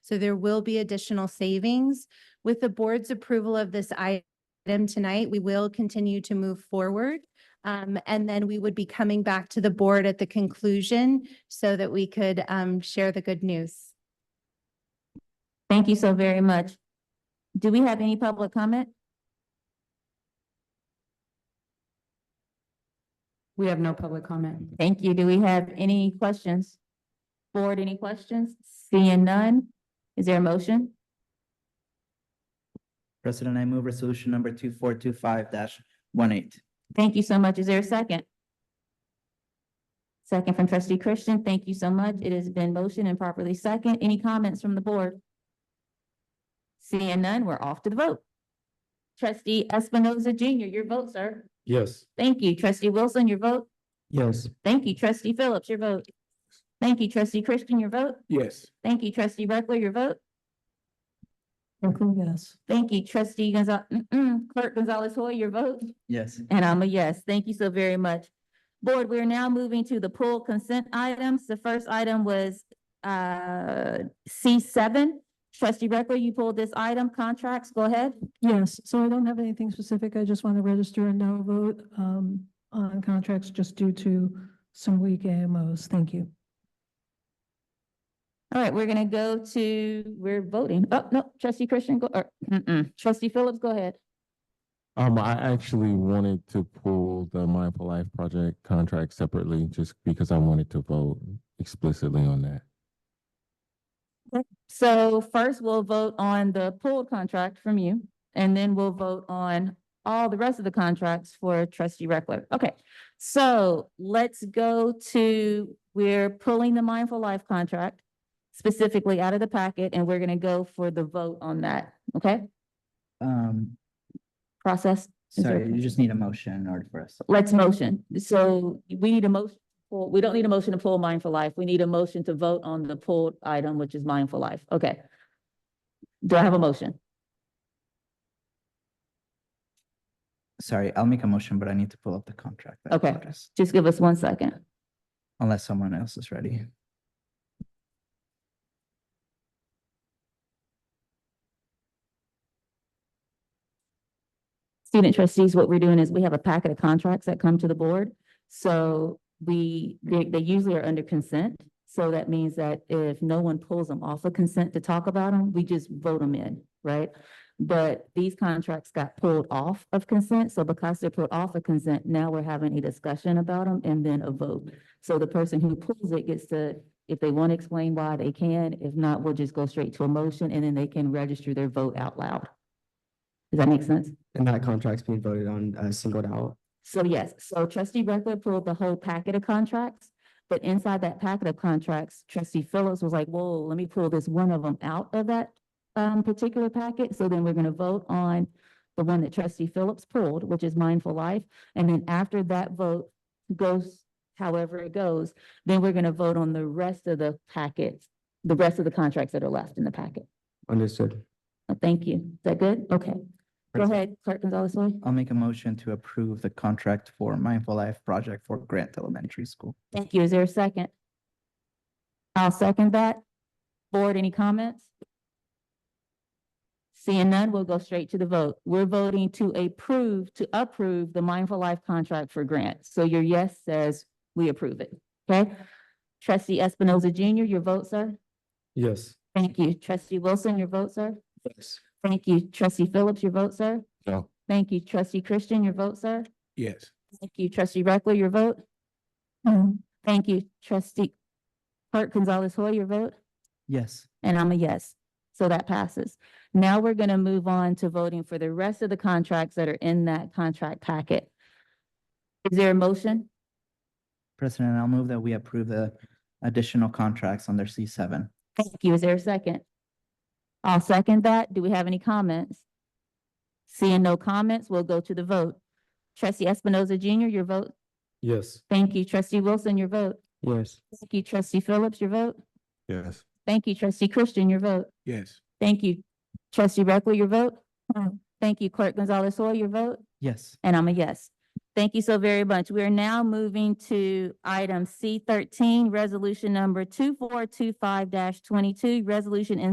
So there will be additional savings. With the board's approval of this item tonight, we will continue to move forward. Um, and then we would be coming back to the board at the conclusion so that we could, um, share the good news. Thank you so very much. Do we have any public comment? We have no public comment. Thank you. Do we have any questions? Board, any questions? Seeing none. Is there a motion? President, I move resolution number two four two five dash one eight. Thank you so much. Is there a second? Second from trustee Christian. Thank you so much. It has been motioned and properly second. Any comments from the board? Seeing none, we're off to the vote. Trustee Espinoza Junior, your vote, sir. Yes. Thank you. Trustee Wilson, your vote. Yes. Thank you. Trustee Phillips, your vote. Thank you. Trustee Christian, your vote. Yes. Thank you. Trustee Reckler, your vote. yes. Thank you, trustee Gonzalez, clerk Gonzalez Hoy, your vote, Yes. and I'm a yes. Thank you so very much. Board, we are now moving to the pool consent items. The first item was uh C seven. Trustee Reckler, you pulled this item, contracts, go ahead. Yes, so I don't have anything specific. I just want to register a no vote um, on contracts just due to some weak AMOs. Thank you. All right, we're gonna go to, we're voting. Oh, no, trustee Christian, go, or, mm-mm, trustee Phillips, go ahead. Um, I actually wanted to pull the Mindful Life Project contract separately just because I wanted to vote explicitly on that. So first, we'll vote on the pooled contract from you, and then we'll vote on all the rest of the contracts for trustee Reckler. Okay, so let's go to, we're pulling the Mindful Life contract specifically out of the packet, and we're gonna go for the vote on that, okay? Um, Process, Is there- sorry, you just need a motion in order for us. let's motion. So we need a motion, well, we don't need a motion to pull Mindful Life. We need a motion to vote on the pulled item, which is Mindful Life. Okay. Do I have a motion? Sorry, I'll make a motion, but I need to pull up the contract. I Okay. apologize. Just give us one second. Unless someone else is ready. Student trustees, what we're doing is we have a packet of contracts that come to the board. So we, they, they usually are under consent. So that means that if no one pulls them off of consent to talk about them, we just vote them in, right? But these contracts got pulled off of consent. So because they're pulled off of consent, now we're having a discussion about them and then a vote. So the person who pulls it gets to, if they want to explain why, they can. If not, we'll just go straight to a motion and then they can register their vote out loud. Does that make sense? And that contract's being voted on, uh, singled out. So yes, so trustee Reckler pulled the whole packet of contracts, but inside that packet of contracts, trustee Phillips was like, whoa, let me pull this one of them out of that um, particular packet. So then we're gonna vote on the one that trustee Phillips pulled, which is Mindful Life. And then after that vote goes however it goes, then we're gonna vote on the rest of the packets, the rest of the contracts that are left in the packet. Understood. Uh, Thank you. Is that good? Okay. Go ahead, clerk Gonzalez-Hoi. I'll make a motion to approve the contract for Mindful Life Project for Grant Elementary School. Thank you. Is there a second? I'll second that. Board, any comments? Seeing none, we'll go straight to the vote. We're voting to approve, to approve the Mindful Life contract for grant. So your yes says we approve it, okay? Trustee Espinoza Junior, your vote, sir? Yes. Thank you. Trustee Wilson, your vote, sir? Yes. Thank you. Trustee Phillips, your vote, sir? No. Thank you. Trustee Christian, your vote, sir? Yes. Thank you. Trustee Reckler, your vote? Um, Thank you, trustee. Clerk Gonzalez Hoy, your vote, Yes. and I'm a yes. So that passes. Now we're gonna move on to voting for the rest of the contracts that are in that contract packet. Is there a motion? President, I'll move that we approve the additional contracts under C seven. Thank you. Is there a second? I'll second that. Do we have any comments? Seeing no comments, we'll go to the vote. Trustee Espinoza Junior, your vote. Yes. Thank you. Trustee Wilson, your vote. Yes. Thank you. Trustee Phillips, your vote. Yes. Thank you. Trustee Christian, your vote. Yes. Thank you. Trustee Reckler, your vote? Aye. Thank you. Clerk Gonzalez Hoy, your vote? Yes. And I'm a yes. Thank you so very much. We are now moving to item C thirteen, resolution number two four two five twenty-two, resolution in